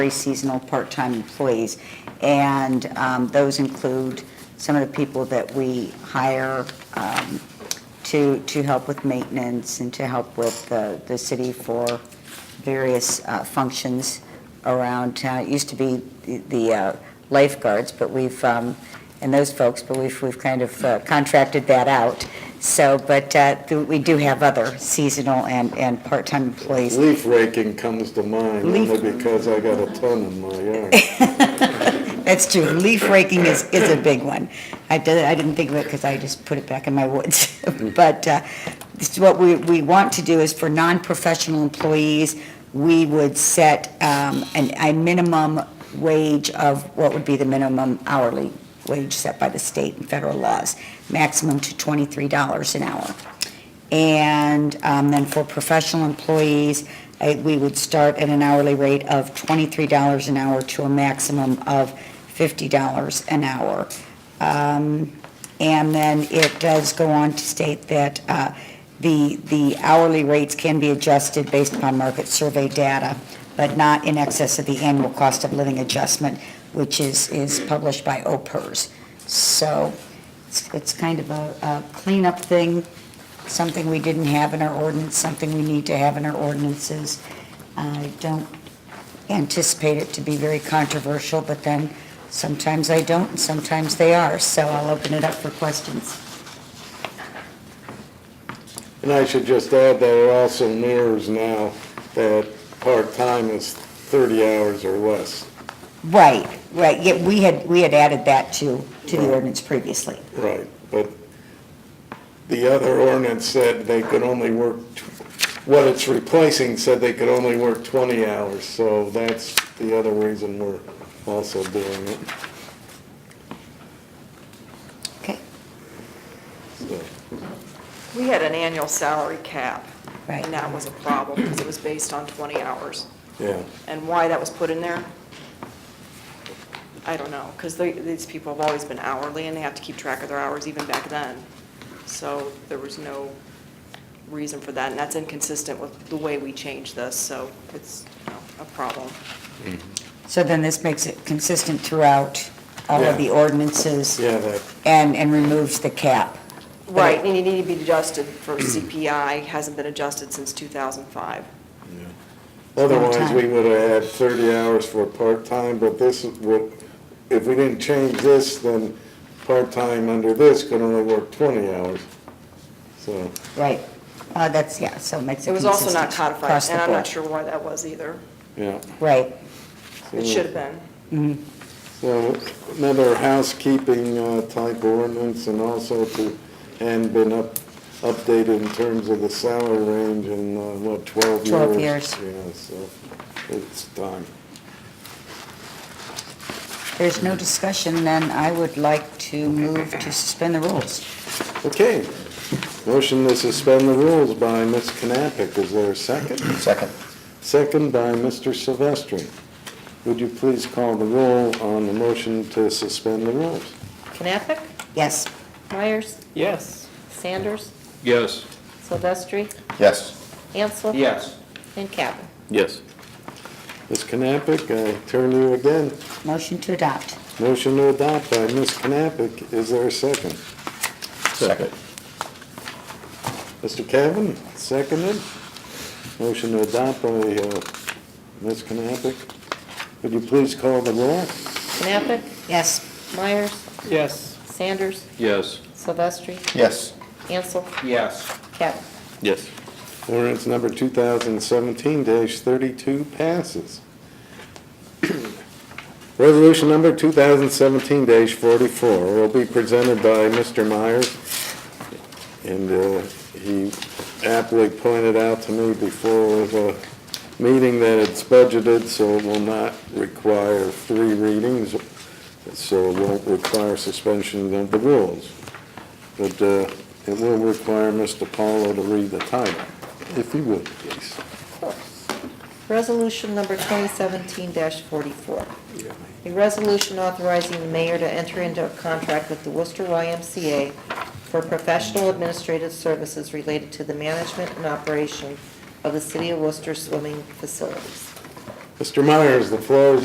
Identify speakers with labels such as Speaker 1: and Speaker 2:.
Speaker 1: very seasonal part-time employees. And um, those include some of the people that we hire um, to, to help with maintenance and to help with the, the city for various uh, functions around town. It used to be the- the uh, lifeguards, but we've, um, and those folks, but we've, we've kind of uh, contracted that out. So, but uh, we do have other seasonal and, and part-time employees.
Speaker 2: Leaf raking comes to mind, only
Speaker 1: Leaf-
Speaker 2: because I got a ton in my yard.
Speaker 1: That's true. Leaf raking is, is a big one. I did, I didn't think of it because I just put it back in my woods. But, uh, this is what we, we want to do is for non-professional employees, we would set, um, an, a minimum wage of what would be the minimum hourly wage set by the state and federal laws, maximum to twenty-three dollars an hour. And, um, then for professional employees, I, we would start at an hourly rate of twenty-three dollars an hour to a maximum of $50 an hour. Um, And then it does go on to state that uh, the the hourly rates can be adjusted based upon market survey data, but not in excess of the annual cost of living adjustment, which is is published by OPERS. So it's it's kind of a a cleanup thing, something we didn't have in our ordinance, something we need to have in our ordinances. I don't anticipate it to be very controversial, but then Sometimes I don't, and sometimes they are, so I'll open it up for questions.
Speaker 2: And I should just add that it also mirrors now that part-time is 30 hours or less.
Speaker 1: Right, right, yeah, we had, we had added that to, to the ordinance previously.
Speaker 2: Right. But the other ordinance said they could only work, tw- what it's replacing said they could only work 20 hours. So that's the other reason we're also doing it.
Speaker 1: Okay.
Speaker 2: So,
Speaker 3: We had an annual salary cap.
Speaker 1: Right.
Speaker 3: And that was a problem because it was based on 20 hours.
Speaker 2: Yeah.
Speaker 3: And why that was put in there, I don't know, because these people have always been hourly and they have to keep track of their hours even back then. So there was no reason for that, and that's inconsistent with the way we changed this, so it's you know, a problem.
Speaker 1: So then this makes it consistent throughout all of the
Speaker 2: Yeah.
Speaker 1: ordinances
Speaker 2: Yeah, that,
Speaker 1: and, and removes the cap.
Speaker 3: Right, and you need to be adjusted for CPI, hasn't been adjusted since 2005.
Speaker 2: Otherwise,
Speaker 1: Part-time.
Speaker 2: we would have had 30 hours for part-time, but this is what, if we didn't change this, then part-time under this could only work 20 hours. So,
Speaker 1: Right, uh, that's, yeah, so it makes it
Speaker 3: It was
Speaker 1: consistent
Speaker 3: also not codified,
Speaker 1: across the
Speaker 3: and I'm not
Speaker 1: board.
Speaker 3: sure why that was either.
Speaker 2: yeah.
Speaker 1: Right,
Speaker 3: It should have been.
Speaker 2: So another housekeeping uh, type ordinance and also to, and been up, updated in terms of the salary range in, uh, what, 12 years?
Speaker 1: 12
Speaker 2: Yeah, so it's time.
Speaker 1: there's no discussion, then I would like to move to suspend the rules.
Speaker 2: Okay. Motion to suspend the rules by Ms. Knappich. Is there a second?
Speaker 4: Second.
Speaker 2: Second by Mr. Silvestri. Would you please call the roll on the motion to suspend the rules?
Speaker 5: Knappich,
Speaker 1: Yes,
Speaker 5: Myers,
Speaker 6: Yes.
Speaker 5: Sanders,
Speaker 6: Yes.
Speaker 5: Silvestri,
Speaker 4: Yes.
Speaker 5: Ansel.
Speaker 6: Yes.
Speaker 5: And Cavan.
Speaker 6: Yes.
Speaker 2: Ms. Knappich, I turn to you again.
Speaker 1: motion to adopt.
Speaker 2: Motion to adopt by Ms. Knappich. Is there a second?
Speaker 4: Second.
Speaker 2: Mr. Cavan, seconded. Motion to adopt by uh, Ms. Knappich. Would you please call the roll?
Speaker 5: Knappich,
Speaker 1: Yes,
Speaker 5: Myers,
Speaker 6: Yes.
Speaker 5: Sanders,
Speaker 6: Yes.
Speaker 5: Silvestri,
Speaker 4: Yes.
Speaker 5: Ansel,
Speaker 6: Yes.
Speaker 5: Cavan.
Speaker 6: Yes.
Speaker 2: Ordinance number 2017-32 passes. Resolution number 2017-44 will be presented by Mr. Myers, and uh, he aptly pointed out to me before the meeting that it's budgeted, so it will not require three readings, so it won't require suspension of the rules. But uh, it will require Mr. Paulo to read the title, if you would, please.
Speaker 5: Resolution number 2017-44. A resolution authorizing the mayor to enter into a contract with the Worcester YMCA for professional administrative services related to the management and operation of the city of Worcester swimming facilities.
Speaker 2: Mr. Myers, the floor is